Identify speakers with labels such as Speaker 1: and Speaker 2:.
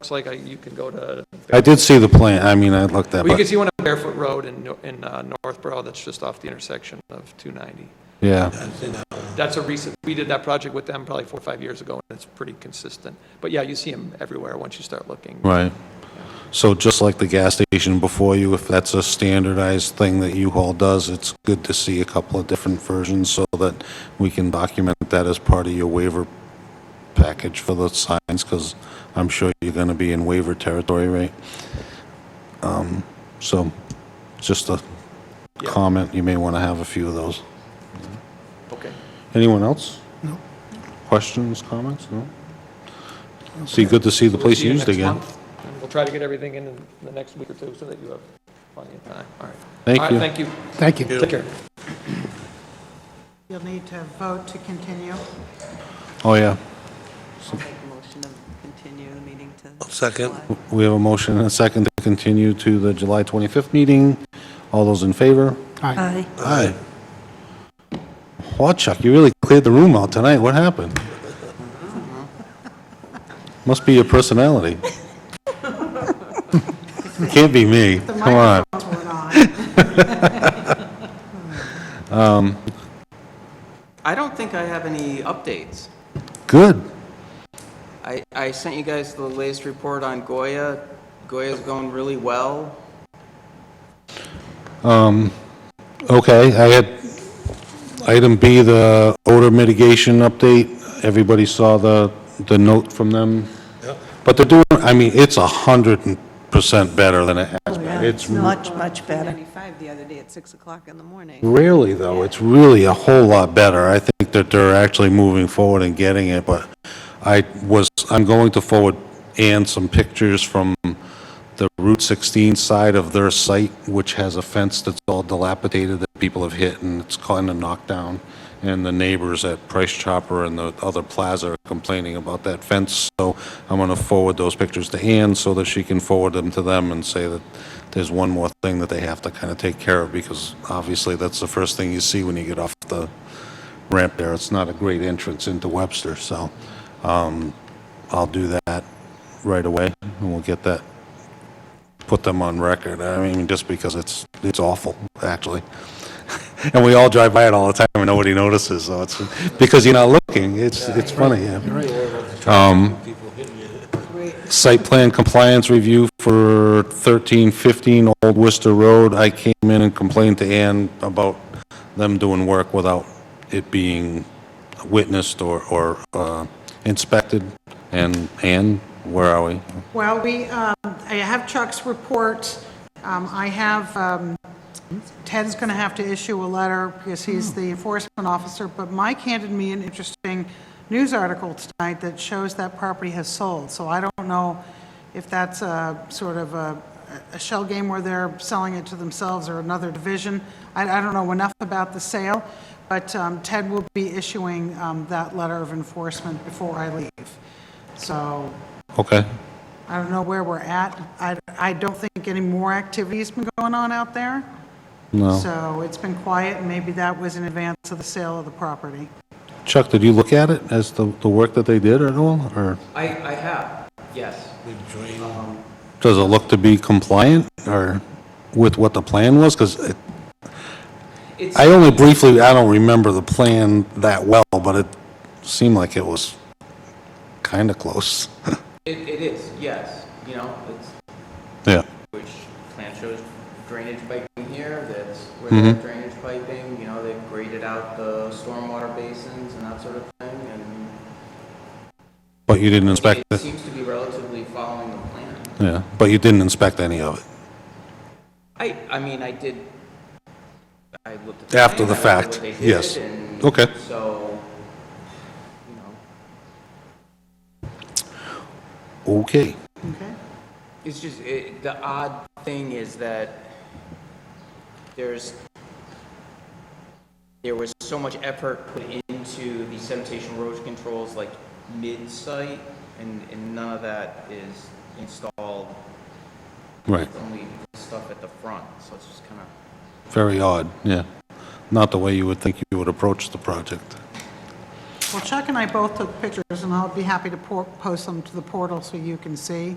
Speaker 1: It's like, uh, you can go to,
Speaker 2: I did see the plan, I mean, I looked at,
Speaker 1: well, you can
Speaker 2: but,
Speaker 1: see one on Barefoot Road in, No- in uh, Northborough that's just off the intersection of 290.
Speaker 2: yeah.
Speaker 1: That's a recent, we did that project with them probably four or five years ago, and it's pretty consistent. But yeah, you see them everywhere once you start looking.
Speaker 2: Right. So just like the gas station before you, if that's a standardized thing that U-Haul does, it's good to see a couple of different versions so that we can document that as part of your waiver package for the signs, because I'm sure you're going to be in waiver territory, right? Um, So just a
Speaker 1: Yeah.
Speaker 2: comment, you may want to have a few of those.
Speaker 1: Okay.
Speaker 2: Anyone else? No. Questions, comments? No? See, good to see the place
Speaker 1: See you
Speaker 2: used
Speaker 1: next
Speaker 2: again.
Speaker 1: month, and We'll try to get everything in in the next week or two so that you have plenty of time. All right.
Speaker 2: Thank
Speaker 1: All
Speaker 2: you.
Speaker 1: right, thank you.
Speaker 3: Thank you.
Speaker 1: Take care.
Speaker 4: You'll need to vote to continue.
Speaker 2: Oh, yeah.
Speaker 5: I'll make a motion to continue the meeting to.
Speaker 6: Second.
Speaker 5: July.
Speaker 2: We have a motion and a second to continue to the July 25th meeting. All those in favor?
Speaker 3: Aye.
Speaker 2: Aye. Wow, Chuck, you really cleared the room out tonight. What happened? Must be your personality. Can't be me. Come on.
Speaker 4: Vote went on.
Speaker 6: I don't think I have any updates.
Speaker 2: Good.
Speaker 6: I, I sent you guys the latest report on Goya. Goya's going really well.
Speaker 2: Okay, I had item B, the odor mitigation update. Everybody saw the, the note from them? But they're doing, I mean, it's 100% better than it has been. It's
Speaker 7: Much, much better.
Speaker 5: 95 the other day at 6 o'clock in the morning.
Speaker 2: Rarely, though, it's really a whole lot better. I think that they're actually moving forward and getting it, but I was, I'm going to forward Ann some pictures from the Route 16 side of their site, which has a fence that's all dilapidated that people have hit, and it's kind of knocked down. And the neighbors at Price Chopper and the other plaza are complaining about that fence. So I'm going to forward those pictures to Ann so that she can forward them to them and say that there's one more thing that they have to kind of take care of, because obviously that's the first thing you see when you get off the ramp there. It's not a great entrance into Webster, so um, I'll do that right away, and we'll get that put them on record. I mean, just because it's, it's awful, actually. And we all drive by it all the time and nobody notices, so it's, because you're not looking, it's, it's funny, yeah. Um, Site plan compliance review for 1315 Old Worcester Road. I came in and complained to Ann about them doing work without it being witnessed or, or uh, inspected. And Ann, where are we?
Speaker 4: Well, we, um, I have Chuck's report. Um, I have, um, Ted's going to have to issue a letter because he's the enforcement officer, but Mike handed me an interesting news article tonight that shows that property has sold. So I don't know if that's a sort of a a shell game where they're selling it to themselves or another division. I I don't know enough about the sale, but um, Ted will be issuing um, that letter of enforcement before I leave. So
Speaker 2: Okay.
Speaker 4: I don't know where we're at. I, I don't think any more activity's been going on out there.
Speaker 2: No.
Speaker 4: So it's been quiet, and maybe that was in advance of the sale of the property.
Speaker 2: Chuck, did you look at it as the, the work that they did at all, or
Speaker 6: I, I have, yes.
Speaker 2: does it look to be compliant, or with what the plan was? Because
Speaker 6: It's,
Speaker 2: I only briefly, I don't remember the plan that well, but it seemed like it was kind of close.
Speaker 6: it, it is, yes, you know, it's,
Speaker 2: Yeah,
Speaker 6: which plan shows drainage piping here, that's where they have drainage piping, you know, they've graded out the stormwater basins and that sort of thing, and
Speaker 2: but you didn't inspect
Speaker 6: it
Speaker 2: it,
Speaker 6: seems to be relatively following the plan.
Speaker 2: yeah, but you didn't inspect any of it.
Speaker 6: I, I mean, I did, I looked at.
Speaker 2: After the
Speaker 6: plan, I
Speaker 2: fact,
Speaker 6: looked at what they did,
Speaker 2: yes.
Speaker 6: and
Speaker 2: Okay.
Speaker 6: So, you know,
Speaker 2: Okay,
Speaker 4: Okay?
Speaker 6: it's just, it, the odd thing is that there's, there was so much effort put into the sanitation erosion controls like mid-site, and, and none of that is installed.
Speaker 2: right,
Speaker 6: It's Only stuff at the front, so it's just kind of.
Speaker 2: very odd, yeah. Not the way you would think you would approach the project.
Speaker 4: Well, Chuck and I both took pictures, and I'll be happy to por- post them to the portal so you can see.